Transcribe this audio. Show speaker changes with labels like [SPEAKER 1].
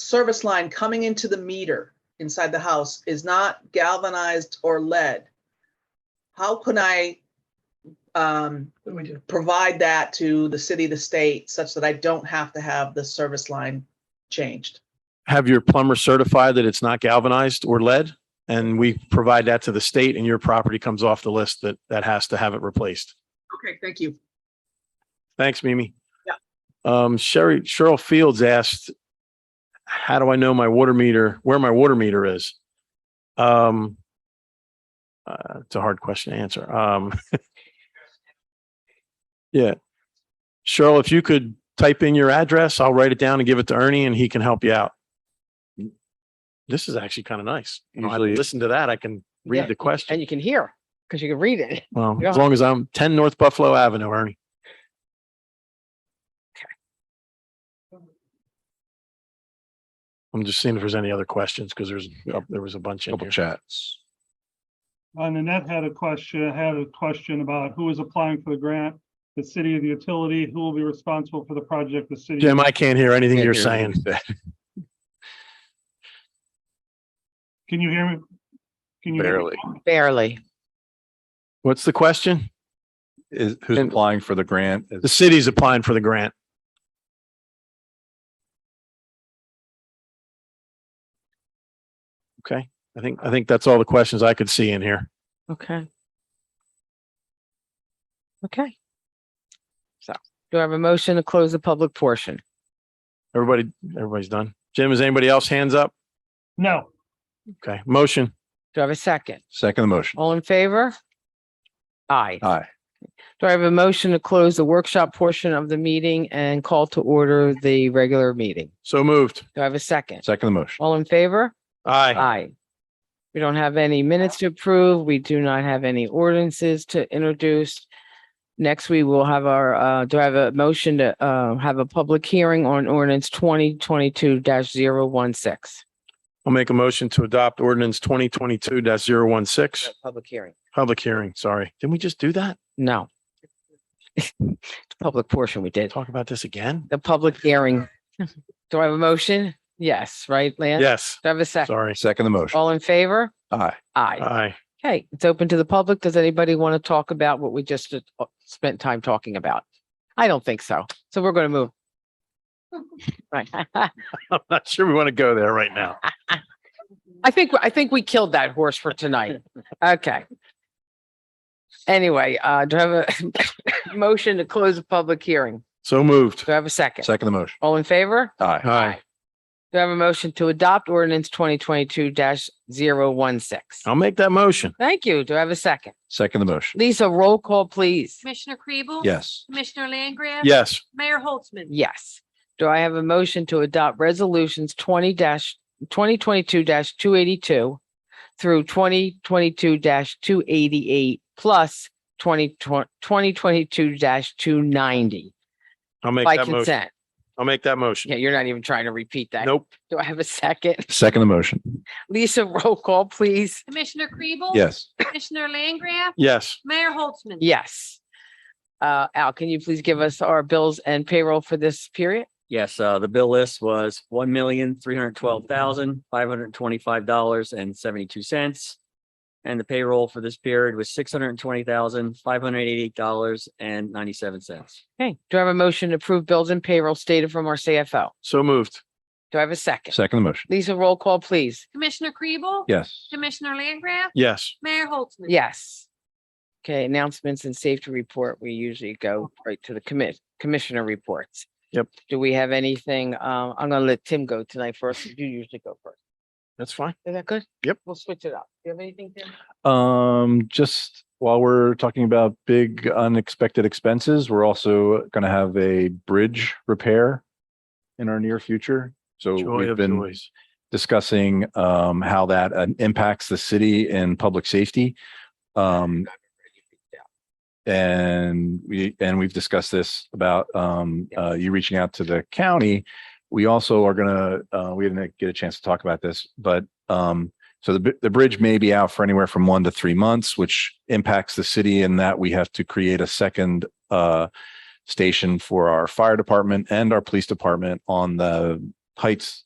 [SPEAKER 1] service line coming into the meter inside the house is not galvanized or lead, how can I um,
[SPEAKER 2] What do we do?
[SPEAKER 1] provide that to the city, the state, such that I don't have to have the service line changed?
[SPEAKER 3] have your plumber certify that it's not galvanized or lead. And we provide that to the state and your property comes off the list that, that has to have it replaced.
[SPEAKER 1] Okay, thank you.
[SPEAKER 3] Thanks, Mimi.
[SPEAKER 1] Yeah.
[SPEAKER 3] Um, Sherry, Cheryl Fields asked, how do I know my water meter, where my water meter is? Um, uh, it's a hard question to answer. Um, yeah. Cheryl, if you could type in your address, I'll write it down and give it to Ernie and he can help you out. This is actually kind of nice. I don't have to
[SPEAKER 4] Usually-
[SPEAKER 3] Listen to that. I can
[SPEAKER 2] Yeah,
[SPEAKER 3] read the question.
[SPEAKER 2] And you can hear because you can read it.
[SPEAKER 3] Well,
[SPEAKER 2] yeah.
[SPEAKER 3] as long as I'm ten North Buffalo Avenue, Ernie. I'm just seeing if there's any other questions because there's, oh, there was a bunch in
[SPEAKER 4] Couple
[SPEAKER 3] here.
[SPEAKER 4] chats.
[SPEAKER 5] Uh, Nanette had a question, had a question about who is applying for the grant, the city of the utility, who will be responsible for the project, the city.
[SPEAKER 3] Jim, I can't hear anything you're
[SPEAKER 4] Can't hear
[SPEAKER 3] saying.
[SPEAKER 4] anything you said,
[SPEAKER 5] Can you hear me? Can you hear me?
[SPEAKER 4] Barely.
[SPEAKER 2] Barely.
[SPEAKER 3] What's the question?
[SPEAKER 4] Is, who's
[SPEAKER 3] And-
[SPEAKER 4] applying for the grant? Is-
[SPEAKER 3] The city's applying for the grant. Okay, I think, I think that's all the questions I could see in here.
[SPEAKER 2] Okay. Okay. So do I have a motion to close the public portion?
[SPEAKER 3] Everybody, everybody's done. Jim, is anybody else hands up?
[SPEAKER 5] No,
[SPEAKER 3] Okay, motion.
[SPEAKER 2] Do I have a second?
[SPEAKER 4] Second the motion.
[SPEAKER 2] All in favor? Aye.
[SPEAKER 3] Oh.
[SPEAKER 4] Aye.
[SPEAKER 2] Do I have a motion to close the workshop portion of the meeting and call to order the regular meeting?
[SPEAKER 3] So moved.
[SPEAKER 2] Do I have a second?
[SPEAKER 4] Second the motion.
[SPEAKER 2] All in favor?
[SPEAKER 3] Aye.
[SPEAKER 2] Aye. We don't have any minutes to approve. We do not have any ordinances to introduce. Next, we will have our, uh, do I have a motion to, uh, have a public hearing on ordinance twenty twenty-two 16
[SPEAKER 3] I'll make a motion to adopt ordinance twenty twenty-two 16
[SPEAKER 2] Public hearing.
[SPEAKER 3] Public hearing, sorry. Didn't we just do that?
[SPEAKER 2] No. The Public portion we did.
[SPEAKER 3] Talk about this again?
[SPEAKER 2] The public hearing. Do I have a motion? Yes, right, Lance?
[SPEAKER 3] Yes,
[SPEAKER 2] Do I have a second?
[SPEAKER 3] sorry.
[SPEAKER 4] Second the motion.
[SPEAKER 2] All in favor?
[SPEAKER 3] Oh,
[SPEAKER 4] Aye.
[SPEAKER 2] Aye.
[SPEAKER 3] Aye.
[SPEAKER 2] Okay, it's open to the public. Does anybody want to talk about what we just uh, uh, spent time talking about? I don't think so. So we're going to move. Right.
[SPEAKER 3] I'm not sure we want to go there right now.
[SPEAKER 2] I think, I think we killed that horse for tonight. Okay. Anyway, uh, do I have a motion to close the public hearing?
[SPEAKER 3] So moved.
[SPEAKER 2] Do I have a second?
[SPEAKER 4] Second the motion.
[SPEAKER 2] All in favor?
[SPEAKER 4] Aye.
[SPEAKER 3] Aye.
[SPEAKER 2] Do I have a motion to adopt ordinance twenty twenty-two 16
[SPEAKER 3] I'll make that motion.
[SPEAKER 2] Thank you. Do I have a second?
[SPEAKER 4] Second the motion.
[SPEAKER 2] Lisa, roll call, please.
[SPEAKER 6] Commissioner Kribel?
[SPEAKER 4] Yes.
[SPEAKER 6] Commissioner Langgraf?
[SPEAKER 3] Yes.
[SPEAKER 6] Mayor Holtzman?
[SPEAKER 2] Yes. Do I have a motion to adopt resolutions twenty twenty twenty-two two eighty-two through twenty twenty-two two eighty-eight plus 2022 two ninety
[SPEAKER 3] I'll make
[SPEAKER 2] by
[SPEAKER 3] that motion.
[SPEAKER 2] consent?
[SPEAKER 3] I'll make that motion.
[SPEAKER 2] Yeah, you're not even trying to repeat that.
[SPEAKER 3] Nope.
[SPEAKER 2] Do I have a second?
[SPEAKER 4] Second the motion.
[SPEAKER 2] Lisa, roll call, please.
[SPEAKER 6] Commissioner Kribel?
[SPEAKER 4] Yes.
[SPEAKER 6] Commissioner Langgraf?
[SPEAKER 3] Yes.
[SPEAKER 6] Mayor Holtzman?
[SPEAKER 2] Yes. Uh, Al, can you please give us our bills and payroll for this period?
[SPEAKER 7] Yes, uh, the bill list was one million, three hundred twelve thousand, five hundred twenty-five dollars and seventy-two cents. And the payroll for this period was six hundred and twenty thousand, five hundred eighty-eight dollars and ninety-seven cents.
[SPEAKER 2] Okay. Do I have a motion to approve bills and payroll stated from our CFO?
[SPEAKER 3] So moved.
[SPEAKER 2] Do I have a second?
[SPEAKER 4] Second the motion.
[SPEAKER 2] Lisa, roll call, please.
[SPEAKER 6] Commissioner Kribel?
[SPEAKER 4] Yes.
[SPEAKER 6] Commissioner Langgraf?
[SPEAKER 3] Yes.
[SPEAKER 6] Mayor Holtzman?
[SPEAKER 2] Yes. Okay, announcements and safety report, we usually go right to the commit, commissioner reports.
[SPEAKER 3] Yep.
[SPEAKER 2] Do we have anything, um, I'm gonna let Tim go tonight first, you usually go first,
[SPEAKER 3] That's fine.
[SPEAKER 2] is that good?
[SPEAKER 3] Yep.
[SPEAKER 2] We'll switch it up, do you have anything, Tim?
[SPEAKER 4] Um, just while we're talking about big unexpected expenses, we're also going to have a bridge repair in our near future. So
[SPEAKER 3] Joy
[SPEAKER 4] we've
[SPEAKER 3] of
[SPEAKER 4] been
[SPEAKER 3] joys.
[SPEAKER 4] discussing um, how that uh, impacts the city and public safety. Um, and we, and we've discussed this about um, uh, you reaching out to the county. We also are gonna, uh, we didn't get a chance to talk about this, but um, so the, bi- the bridge may be out for anywhere from one to three months, which impacts the city in that we have to create a second uh, station for our fire department and our police department on the Heights